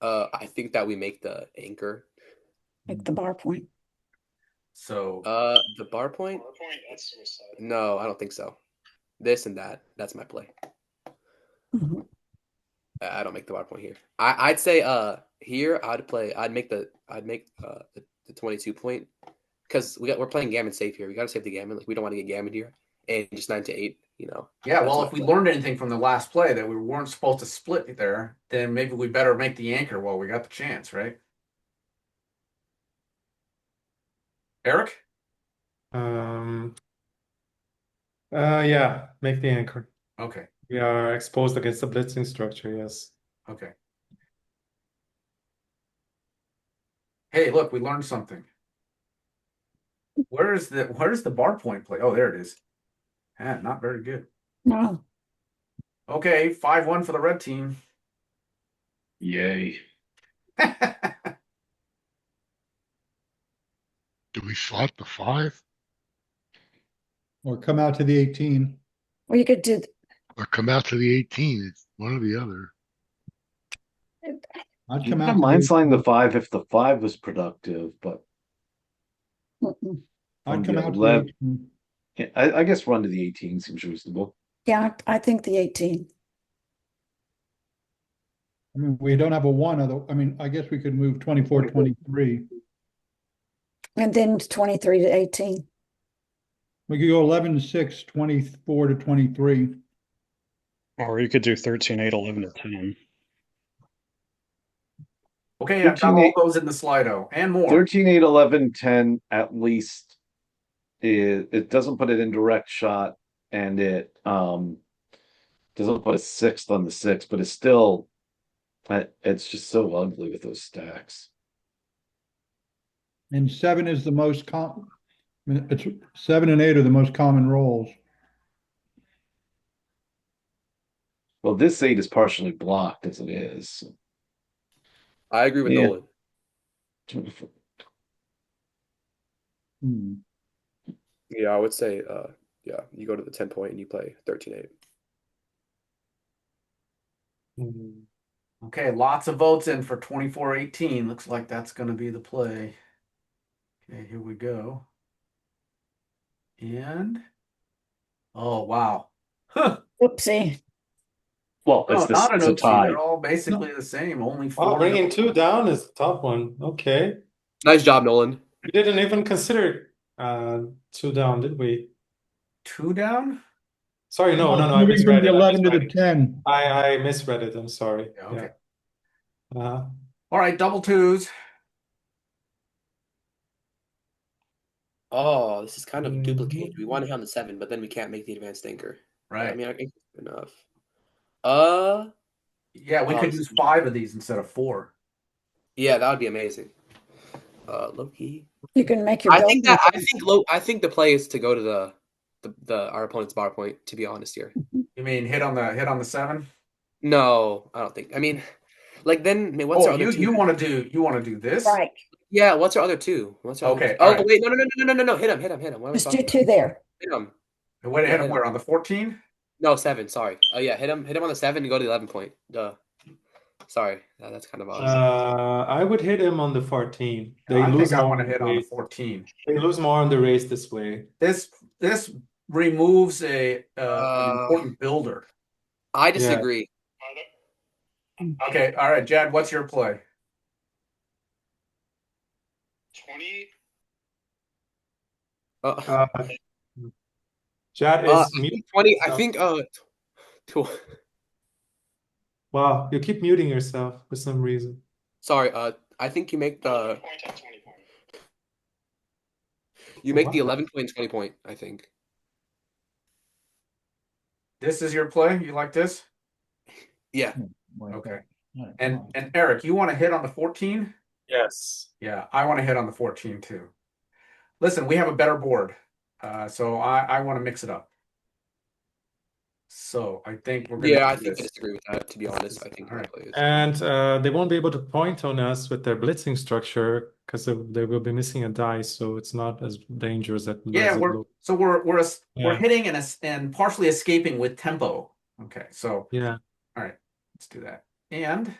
Uh, I think that we make the anchor. Like the bar point. So Uh, the bar point? PowerPoint, that's suicide. No, I don't think so. This and that. That's my play. Mhm. I, I don't make the bar point here. I, I'd say uh here I'd play. I'd make the I'd make uh the, the twenty two point because we got we're playing gammon safe here. We gotta save the gammon. Like we don't want to get gammon here and just nine to eight. You know. yeah, well, That's if we my- learned anything from the last play that we weren't supposed to split there, then maybe we better make the anchor while we got the chance, right? Eric, Um, uh, yeah, make the anchor. okay, We are exposed against the blitzing structure, yes. okay. Hey, look, we learned something. Where is the where is the bar point play? Oh, there it is. Ah, not very good. No, Okay, five one for the red team. Yay. Do we slot the five Or come out to the eighteen. or you could do, or come out to the eighteen? It's one or the other. I'd come Yeah, out. to the mine's 18. lying the five if the five was productive, but mm-mm. I'd come Yeah, out to the left. 18. yeah, I, I guess run to the eighteen seems reasonable. yeah, I I think the eighteen. I mean, we don't have a one, other, I mean, I guess we could move twenty-four, twenty-three. And then twenty-three to eighteen. We could go eleven, six, twenty-four to twenty-three. Or you could do 13, 8, 11, to 10. Okay, I've got all 13. those in the Slido and more. 13, 8, 11, 10 at least. It, it doesn't put it in direct shot and it um doesn't put a sixth on the six, but it's still I- it's just so ugly with those stacks. And seven is the most com, I mean, it's, seven and eight are the most common rolls. Well, this eight is partially blocked as it is. I agree with Yeah. Nolan. Hmm. Yeah, I would say uh yeah you go to the ten point and you play thirteen eight. Hmm. Okay, lots of votes in for twenty-four eighteen. Looks like that's gonna be the play. Okay, here we go. And oh wow. Huh. Whoopsie. Well, No, it's, this, not an it's a OT. tie. They're all basically the same. Only Wow, four. bringing two down is a tough one. Okay. Nice job, Nolan. We didn't even consider uh two down, did we? Two down? Sorry, no, no, no, I Moving from misread the it. I Eleven to the misread it. ten. I I misread it. I'm sorry. Yeah, okay. Yeah. Uh, All right, double twos. Oh, this is kind of duplicated. We Mhm. want to hit on the seven, but then we can't make the advanced anchor. I Right. mean, I think it's enough. Uh, Yeah, we could use five of these instead of four. yeah, that would be amazing. Uh, Loki. You can make your. I think goal. that I think low. I think the play is to go to the the, the our opponent's bar point. To be honest here, You mean hit on the hit on the seven? no, I don't think. I mean, like then, I mean, what's our Oh, other you two? you want to do you want to do this? Right, yeah, what's our other two? What's our Other Okay, two? Oh alright. wait, no, no, no, no, no, no, no, hit him, hit him, hit him. What am I just do talking two there. about? Hit him. Wait, hit Yeah, him hit where on the fourteen? No seven. Sorry. Oh yeah, hit him. Hit him on the seven and go to the eleven point. Duh. Sorry, that, that's kind of odd. uh I would hit him on the 14. They I lose think I more want to on the hit on the race. fourteen. They lose more on the race this way. This this removes a uh, an Uh, important builder. I disagree. Okay, all right, Jad, what's your play? Twenty, Uh, Uh Jad Uh, is mute. Twenty. I so- think. Uh, tw- Wow, you keep muting yourself for some reason. sorry. Uh, I think you make the point at twenty point. you make the Wow. eleven point twenty point. I think. This is your play. You like this? Yeah. Like Okay. that. And and Eric, you want to hit on the 14? Yes. Yeah, I want to hit on the 14 too. Listen, we have a better board. Uh, so I I want to mix it up. So I think we're gonna Yeah, I do think I this. disagree with that. To be honest, I think Alright. that is- And uh, they won't be able to point on us with their blitzing structure because they, they will be missing a die, so it's not as dangerous as, as Yeah, it we're looks. so we're we're es- we're Yeah. hitting and es- and partially escaping with tempo. Okay, so Yeah, let's do that. And